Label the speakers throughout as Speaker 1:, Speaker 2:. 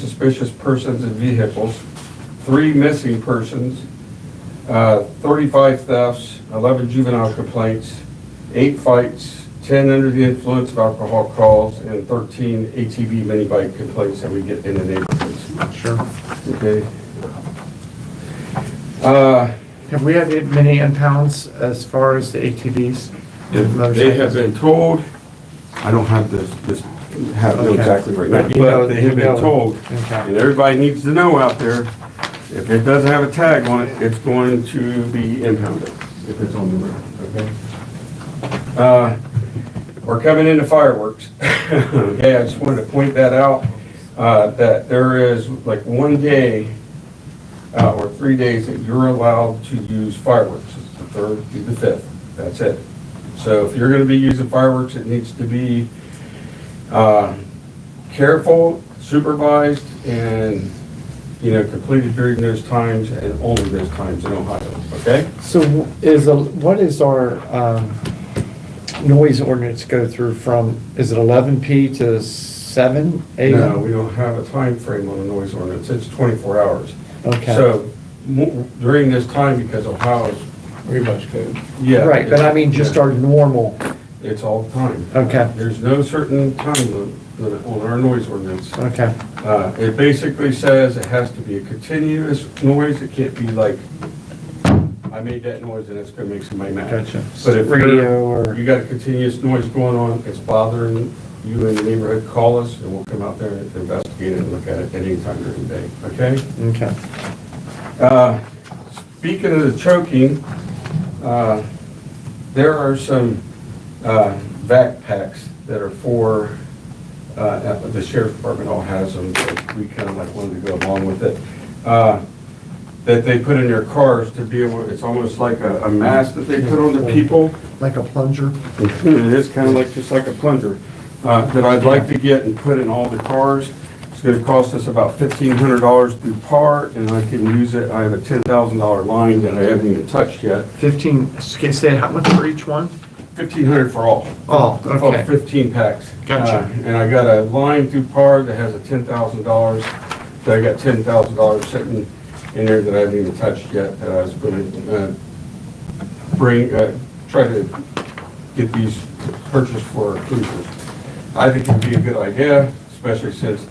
Speaker 1: suspicious persons and vehicles, three missing persons, uh, 35 thefts, 11 juvenile complaints, eight fights, 10 under the influence of alcohol calls, and 13 ATV mini bike complaints that we get in the neighborhoods.
Speaker 2: Sure.
Speaker 1: Okay? Uh,
Speaker 2: Have we had many impounds as far as the ATVs?
Speaker 3: If they have been told, I don't have this, this, have it exactly right
Speaker 2: But you
Speaker 3: now.
Speaker 2: know-
Speaker 1: But they have
Speaker 2: you know-
Speaker 1: been told,
Speaker 2: Okay.
Speaker 1: and everybody needs to know out there, if it doesn't have a tag on it, it's going to be impounded if it's on the road, okay? Uh, We're coming into fireworks. Okay, I just wanted to point that out, uh, that there is like one day uh, or three days that you're allowed to use fireworks, It's the third through the fifth, that's it. So if you're gonna be using fireworks, it needs to be uh, careful, supervised, and, you know, completed during those times and only those times in Ohio, okay?
Speaker 2: So w- is, a what is our um, noise ordinance go through from, is it 11P to 7, 8?
Speaker 1: No, we don't have a time frame on the noise ordinance, it's 24 hours.
Speaker 2: Okay.
Speaker 1: So mo- during this time, because Ohio's,
Speaker 4: Revised code.
Speaker 1: yeah.
Speaker 2: Right, but I mean just
Speaker 1: yeah,
Speaker 2: our normal,
Speaker 1: It's all the time.
Speaker 2: Okay.
Speaker 1: There's no certain time lim- limit on our noise ordinance.
Speaker 2: okay,
Speaker 1: Uh, It basically says it has to be a continuous noise, it can't be like, I made that noise and it's gonna make somebody mad.
Speaker 2: Gotcha.
Speaker 1: But if
Speaker 2: Radio
Speaker 1: you're-
Speaker 2: or-
Speaker 1: you got a continuous noise going on, it's bothering you in the neighborhood, call us and we'll come out there and investigate it and look at it at any time during the day, okay?
Speaker 2: okay.
Speaker 1: Uh, Speaking of the choking, uh, there are some uh, backpacks that are for, uh, the sheriff's department all has them, but we kind of like wanted to go along with it, uh, that they put in their cars to be able, it's almost like a a mask that they put on the people.
Speaker 2: Like a plunger?
Speaker 1: It is kind of like, just like a plunger, uh, that I'd like to get and put in all the cars. It's gonna cost us about fifteen hundred dollars through par, and I can use it, I have a ten thousand dollar line that I haven't even touched yet.
Speaker 2: 15, can you say how much for each one?
Speaker 1: Fifteen hundred for all.
Speaker 2: Oh,
Speaker 1: Oh,
Speaker 2: okay,
Speaker 1: fifteen packs.
Speaker 2: Gotcha.
Speaker 1: Uh, And I got a line through par that has a ten thousand dollars, so I got ten thousand dollars sitting in there that I haven't even touched yet, that I was gonna, uh, bring, uh, try to get these purchased for our cruisers. I think it'd be a good idea, especially since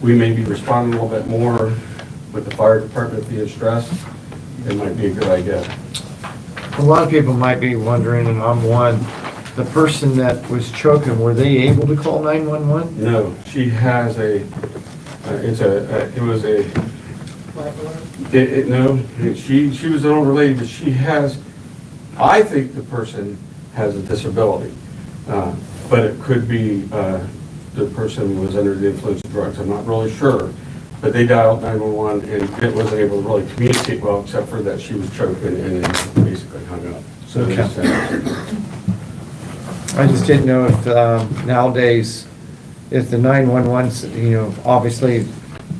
Speaker 1: we may be responding a little bit more with the fire department being stressed. It might be a good idea.
Speaker 2: a lot of people might be wondering, and I'm one, the person that was choking, were they able to call 911?
Speaker 1: No, she has a, uh, it's a, uh, it was a, it, it, no, she, she was unrelated, but she has, I think the person has a disability. Uh, But it could be, uh, the person was under the influence of drugs, I'm not really sure. But they dialed 911 and it wasn't able to really communicate well, except for that she was choking and then basically hung up. So,
Speaker 2: Okay.
Speaker 1: it's, uh,
Speaker 2: I just didn't know if um, nowadays, if the 911, you know, obviously,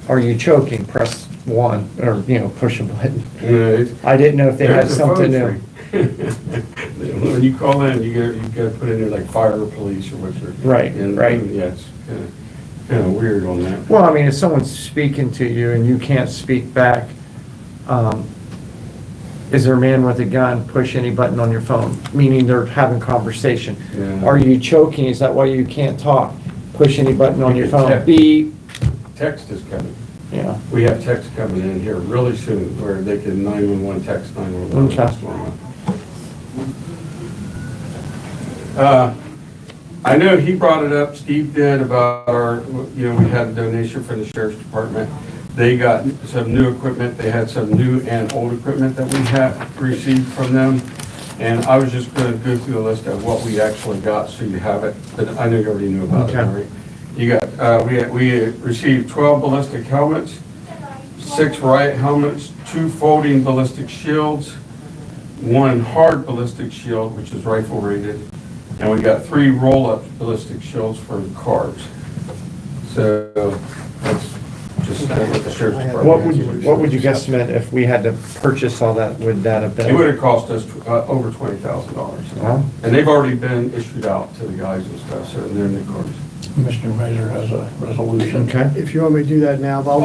Speaker 2: are you choking, press one, or, you know, push a button.
Speaker 1: you know, it's-
Speaker 2: I didn't know if they had
Speaker 1: There's a
Speaker 2: something
Speaker 1: phone
Speaker 2: new.
Speaker 1: tree. When you call in, you get, you gotta put in there like fire or police or whatever.
Speaker 2: Right,
Speaker 1: And,
Speaker 2: right.
Speaker 1: Yeah, it's kinda, kinda weird on that.
Speaker 2: Well, I mean, if someone's speaking to you and you can't speak back, um, is there a man with a gun, push any button on your phone, meaning they're having conversation?
Speaker 1: Yeah.
Speaker 2: Are you choking, is that why you can't talk? Push any button on your
Speaker 1: Yeah.
Speaker 2: phone, beep,
Speaker 1: Text is coming.
Speaker 2: yeah,
Speaker 1: We have text coming in here really soon where they can nine-one-one text nine-one-one.
Speaker 2: Okay.
Speaker 1: what's going on. Uh, I know he brought it up, Steve did, about our, you know, we had a donation from the sheriff's department. They got some new equipment, they had some new and old equipment that we have received from them. And I was just gonna go through the list of what we actually got, so you have it, but I know you already knew about it,
Speaker 2: Okay.
Speaker 1: right? You got, uh, we, we received twelve ballistic helmets, six riot helmets, two folding ballistic shields, one hard ballistic shield, which is rifle rated, and we got three roll-up ballistic shields for the cars. So that's just what the sheriff's department.
Speaker 2: What would, you- what would you guesstimate if we had to purchase all that, would that have been?
Speaker 1: It would have cost us uh, over twenty thousand dollars.
Speaker 2: Well,
Speaker 1: And they've already been issued out to the guys and stuff, so they're in the cars.
Speaker 4: Mr. Mayor has a resolution.
Speaker 2: Okay.
Speaker 5: If you want me to do that now, but I'll